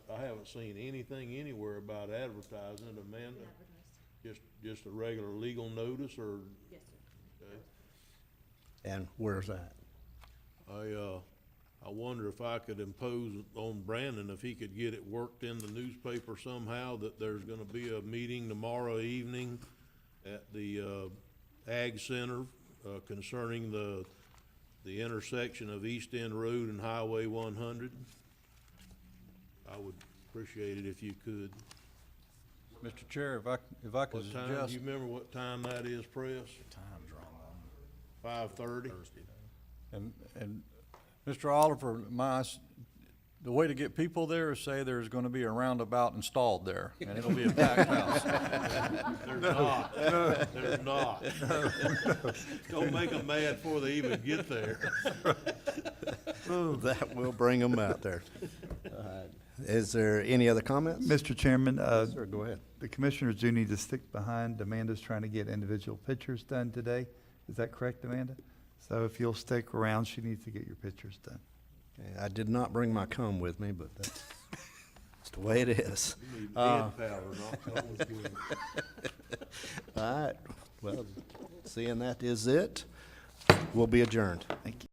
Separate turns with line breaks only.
haven't seen anything anywhere about advertising it, Amanda.
advertised.
Just, just a regular legal notice or, uh,
Yes, sir.
okay.
And where's that?
I, uh, I wonder if I could impose on Brandon, if he could get it worked in the newspaper somehow, that there's gonna be a meeting tomorrow evening at the, uh, Ag Center, uh, concerning the, the intersection of East End Road and Highway one hundred. I would appreciate it if you could.
Mr. Chair, if I, if I could
What time, do
suggest,
you remember what time that is, Press?
Time's wrong
Five thirty?
and, and Mr. Oliver, my, s- the way to get people there is say there's gonna be a roundabout installed there, and it'll be a packed house.
There's not, there's not. Don't make them mad before they even get there.
Oh, that will bring them out there. Uh, Is there any other comments?
Mr. Chairman, uh,
Sir, go ahead.
the commissioners do need to stick behind. Amanda's trying to get individual pictures done today. Is that correct, Amanda? So if you'll stick around, she needs to get your pictures done.
Okay, I did not bring my comb with me, but that's, that's the way it is.
You need
Uh,
bid power, not cold fuel.
All right, well, seeing that is it, we'll be adjourned.